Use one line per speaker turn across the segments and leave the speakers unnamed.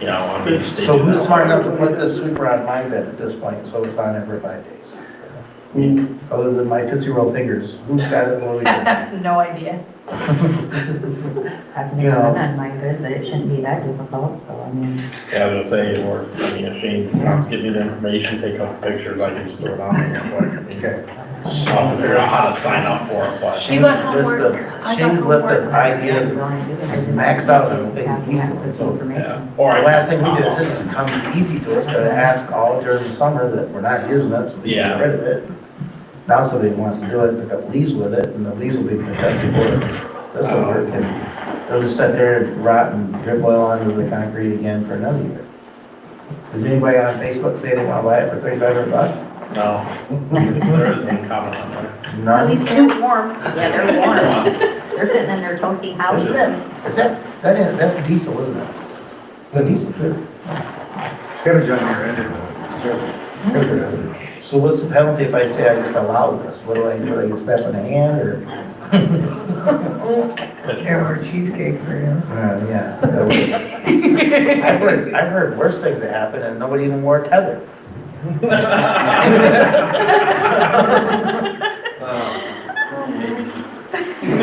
You know, I mean, they
So
do
who's
that.
smart enough to put this sweeper on my bed at this point, so it's on every five days? Other than my tootsie-roll fingers, who's got it really
I
good?
have no idea.
I've never done on my good, but it shouldn't be that difficult, so I mean,
Yeah, I was gonna say, or, I mean, if Shane wants to give me the information, take a couple pictures, I can just throw it on there. like, I mean,
Okay.
I'll figure out how to sign up for it, but.
You got
Shane's list of-
homework. I got
Shane's list of
homework.
ideas,
the
the
only thing
It's
is
maxed out on the things he's doing, so,
information.
Yeah, Or I.
last thing we did, this has come easy to us to ask all during the summer that we're not using it, so we should get
Yeah.
rid of it. Now somebody wants to do it, pick up leaves with it, and the leaves will be picked up before this will work, and they'll just sit there and rot and drip oil onto the concrete again for another year. Does anybody on Facebook say they want to buy it for thirty-five hundred bucks?
No, there isn't any comment on that.
At
None?
least they're warm.
Yeah, they're warm. They're sitting in their toasty houses.
Is that, that is, that's diesel, isn't it? It's a diesel too.
It's got a John Deere engine on
So what's the penalty if I say I just allow this? What do I do? I get slapped in the hand or?
cheesecake for you.
Uh, yeah. that would- I've heard, I've heard worse things that happened and nobody even wore a tether. It's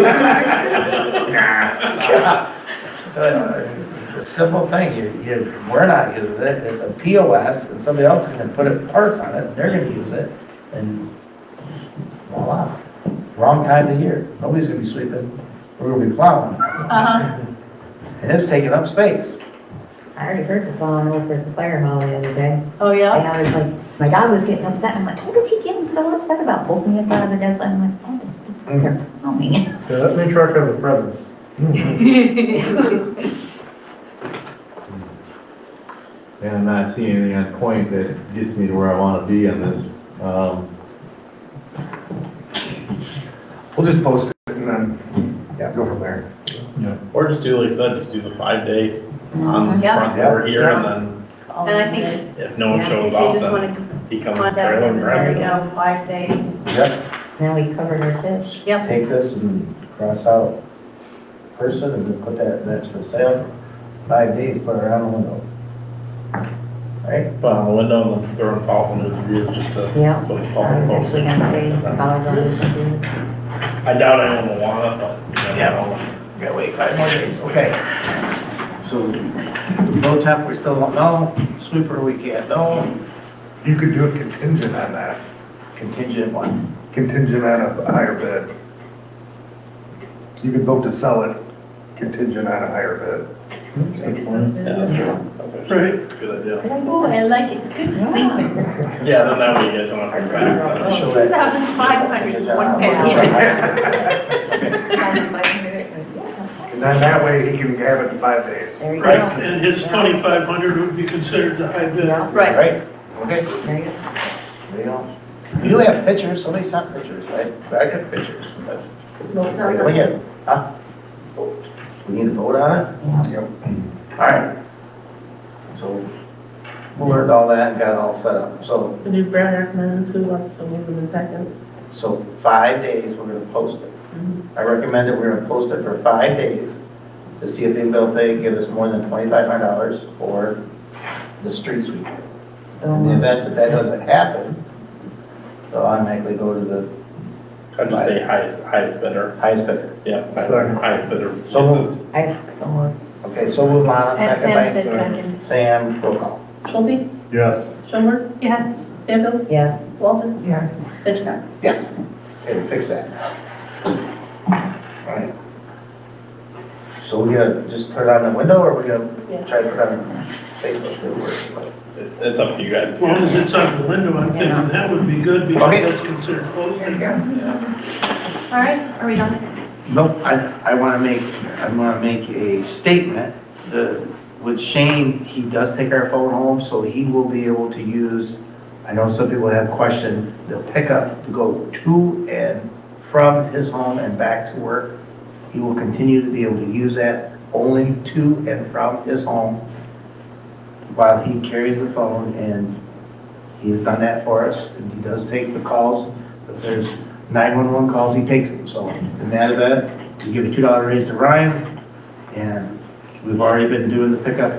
uh, a Simple thing, you, you, we're not using it, it's a POS and somebody else can put a parts on it and they're gonna use it and voila. Wrong time of year, nobody's gonna be sweeping, we're gonna be plowing
Uh-huh.
and it's taking up space.
I already heard the phone over at the fire hall the other day.
Oh, yeah?
And I was like, my dog was getting upset. I'm like, what is he getting so upset about? Pulled me up out of the desk. I'm like, oh, it's- they're filming.
it. Let me truck has a presence.
and I'm not seeing anything on point that gets me to where I want to be on this. Um,
We'll just post it and then, yeah, go from there.
Or just do like I said, just do the five day on the
Yeah.
front door here and
And I think
then if no one
Yeah,
shows
they
up,
just
then
want to
he comes to the
contact
trailer and
them, there
grabs
you
them.
go, five days.
Yep,
Now we covered our dish.
Yep.
take this and cross out person and then put that, that's for sale, five days, put it around the window. Right?
Put on the window and then throw a call from the roof just to.
Yeah.
So it's
I was actually
called.
gonna say, follow the rules.
I doubt anyone will want it, but. you never know.
Yeah, wait, five more days, okay. So, low top, we still don't know, sweeper, we can't know,
You could do a contingent on that,
contingent one.
contingent on a higher bid. You could vote to sell it contingent on a higher
Yeah, that's true. That's Right. Good idea.
Oh, I like it. Good thinking.
Yeah, then that way you guys don't have to go back. That's
So
just-
Two
that-
thousand five hundred one penny.
Okay.
bid. And then that way he can have it in five days.
There you go.
Right, and his twenty-five hundred would be considered the high bid.
Yeah,
Right.
Right, okay,
there you go.
we don't, you have pictures, somebody sent pictures, right? I took pictures, but. We get, huh? We need to vote on it?
Yep.
Alright. So, we learned all that and got it all set up, so,
Do Brad recommends who wants to move in the second?
so five days, we're gonna post it. I recommend that we're gonna post it for five days to see if anybody will pay, give us more than twenty-five hundred dollars for the street sweeper.
So,
In the event that that doesn't happen, they'll automatically go to the
I'd just say highest, highest bidder.
highest bidder.
Yeah,
Sorry.
highest bidder.
So
I, so,
Okay, so we'll on
And
second
Sam
by
said second.
Sam, roll call.
Shelby,
Yes.
Schoenberg,
Yes.
Stanfield,
yes.
Walton,
Yes.
Hitchcock.
Yes. Okay, we fix that. Alright. So we gonna just put it on the window, or we
Yeah.
gonna try to put it on Facebook? It'll work.
It- It's up to you guys.
As long as it's on the window, I'm thinking that would be good
Okay.
because that's considered closing.
All right, are we done?
Nope, I, I want to make, I want to make a statement. The, with Shane, he does take our phone home, so he will be able to use, I know some people have questioned, the pickup to go to and from his home and back to work. He will continue to be able to use that only to and from his home while he carries the phone, and he has done that for us, and he does take the calls. If there's 911 calls, he takes them, so in that event, you give a $2 raise to Ryan, and we've already been doing the pickup